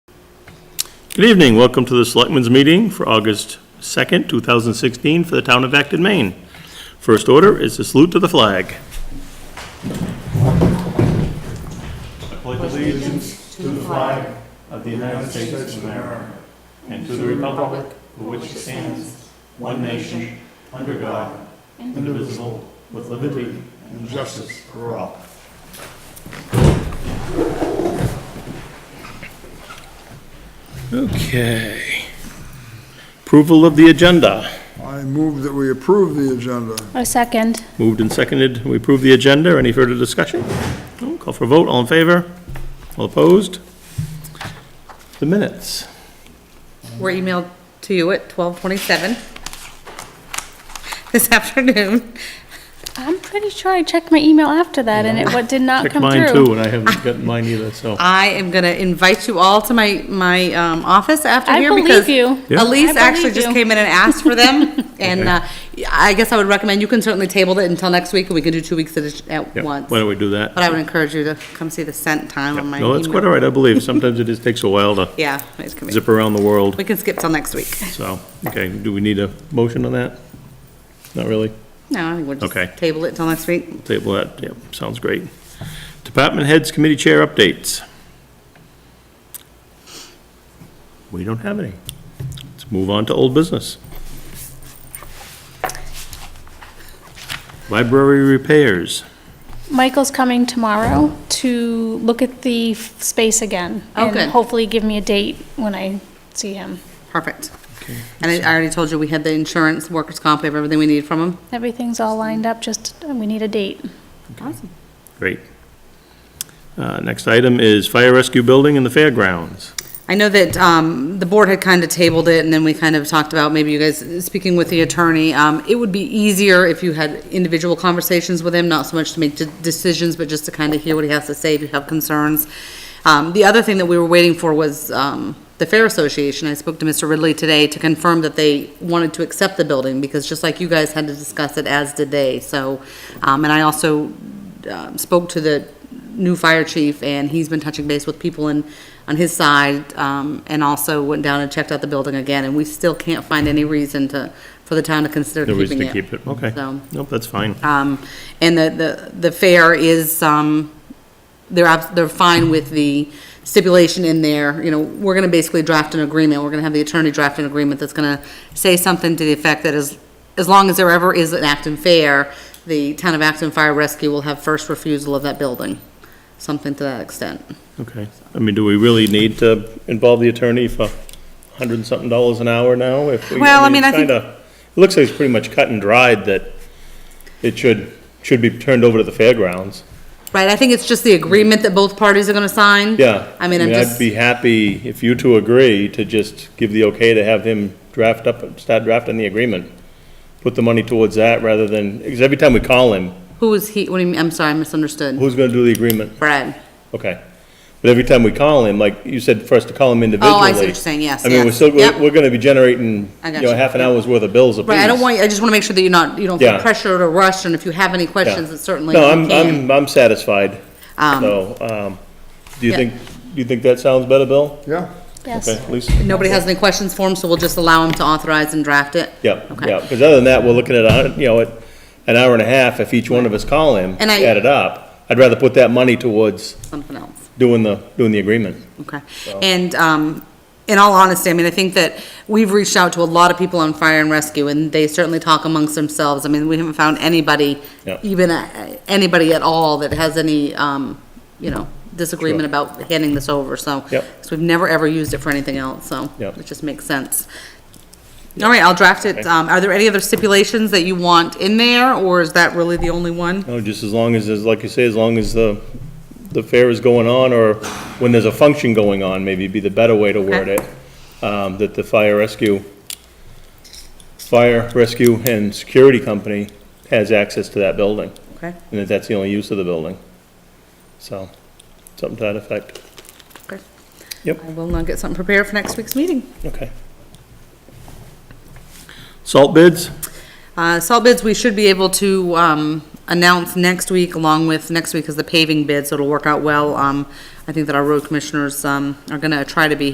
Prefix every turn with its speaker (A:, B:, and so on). A: Good evening, welcome to the Selectmen's Meeting for August 2nd, 2016, for the town of Acton, Maine. First order is a salute to the flag. I pledge allegiance to the flag of the United States of America and to the republic for which it stands, one nation, under God, indivisible, with liberty and justice for all. Okay. Approval of the agenda.
B: I move that we approve the agenda.
C: A second.
A: Moved and seconded, we approve the agenda. Any further discussion? No? Call for a vote, all in favor? All opposed? The minutes.
D: were emailed to you at twelve twenty-seven this afternoon.
C: I'm pretty sure I checked my email after that and it what did not
A: Check
C: come
A: mine
C: through.
A: too, and I haven't gotten mine either, so.
D: I am gonna invite you all to my, my, um, office after
C: I
D: here
C: believe
D: because
C: you. Yeah. I
D: Elise
C: believe
D: actually just
C: you.
D: came in and asked for them. And, uh, I guess I would recommend, you can certainly table it until next week and we can do two weeks at, a-
A: Yeah,
D: at once.
A: Why don't
D: But
A: we do that?
D: I would encourage you to come see the scent time on my
A: No, that's quite all
D: email.
A: right, I believe. Sometimes it just takes a while to
D: Yeah, it's gonna be-
A: zip around the world,
D: we can skip till next week.
A: so. Okay, do we need a motion on that? Not really?
D: No, I think we'll
A: Okay.
D: just table it till next week.
A: Table that, yeah, sounds great. Department heads, committee chair updates. We don't have any. Let's move on to old business. Library repairs.
C: Michael's coming tomorrow to look at the f- space again.
D: Oh,
C: and
D: good.
C: Hopefully give me a date when I see him.
D: Perfect. And I I already told you, we had the insurance, workers' comp, we have everything we need from them.
C: Everything's all lined up, just uh, we need a date.
D: Awesome.
A: Great. Uh, Next item is fire rescue building in the fairgrounds.
D: I know that um, the board had kind of tabled it, and then we kind of talked about, maybe you guys, speaking with the attorney, um, it would be easier if you had individual conversations with him, not so much to make de- decisions, but just to kind of hear what he has to say if you have concerns. Um, The other thing that we were waiting for was um, the Fair Association. I spoke to Mr. Ridley today to confirm that they wanted to accept the building, because just like you guys had to discuss it, as did they, so, um, and I also um, spoke to the new fire chief, and he's been touching base with people in, on his side, um, and also went down and checked out the building again, and we still can't find any reason to, for the town to consider
A: No reason
D: keeping
A: to
D: it.
A: keep it, okay.
D: So-
A: Nope, that's fine.
D: Um, and the, the, the fair is, um, they're, abs- they're fine with the stipulation in there, you know, we're gonna basically draft an agreement, we're gonna have the attorney draft an agreement that's gonna say something to the effect that as, as long as there ever is an Acton Fair, the town of Acton Fire Rescue will have first refusal of that building, something to that extent.
A: Okay. I mean, do we really need to involve the attorney for a hundred and something dollars an hour now? If we-
D: Well, I mean, I think-
A: kinda- It looks like it's pretty much cut and dried that it should, should be turned over to the fairgrounds.
D: Right, I think it's just the agreement that both parties are gonna sign.
A: Yeah.
D: I mean, I'm
A: I'd
D: just,
A: be happy if you two agree to just give the okay to have him draft up, start drafting the agreement. Put the money towards that rather than, because every time we call him,
D: who is he, what do you mean, I'm sorry, I misunderstood.
A: who's gonna do the agreement?
D: Brad,
A: Okay. But every time we call him, like you said, for us to call him individually.
D: Oh, I see what you're saying, yes,
A: I mean, we're
D: yes.
A: still, we're,
D: Yep.
A: we're gonna be generating,
D: I
A: you
D: got
A: know,
D: you.
A: half an hour's worth of bills apiece.
D: right, I don't want, you- I just wanna make sure that you're not, you don't feel
A: Yeah.
D: pressured or rushed, and if you have any
A: Yeah.
D: questions, it's certainly you
A: No, I'm,
D: can.
A: I'm, I'm satisfied.
D: Um,
A: So, um, do you
D: yeah.
A: think, do you think that sounds better, Bill?
B: Yeah,
C: Yes.
A: Okay, Lisa?
D: Nobody has any questions for him, so we'll just allow him to authorize and draft it?
A: Yeah,
D: Okay.
A: yeah, because other than that, we're looking at, a hun- you know, at an hour and a half if each one of us call him,
D: And I-
A: add it up. I'd rather put that money towards
D: Something else,
A: doing the, doing the agreement.
D: okay. And, um, in all honesty, I mean, I think that we've reached out to a lot of people on fire and rescue, and they certainly talk amongst themselves. I mean, we haven't found anybody,
A: Yeah.
D: even uh, anybody at all that has any, um, you know, disagreement
A: Sure.
D: about handing this over, so.
A: Yep.
D: So we've never, ever used it for anything else, so.
A: Yep.
D: It just makes sense. All right, I'll draft it.
A: Okay.
D: Um, are there any other stipulations that you want in there, or is that really the only one?
A: No, just as long as, as like you say, as long as the, the fair is going on, or when there's a function going on, maybe be the better way to word it, um, that the fire rescue, fire rescue and security company has access to that building,
D: Okay.
A: and that that's the only use of the building. So, something to that effect.
D: Okay.
A: Yep.
D: I will now get something prepared for next week's meeting.
A: Okay. Salt bids?
D: Uh, salt bids, we should be able to, um, announce next week along with, next week is the paving bid, so it'll work out well. Um, I think that our road commissioners, um, are gonna try to be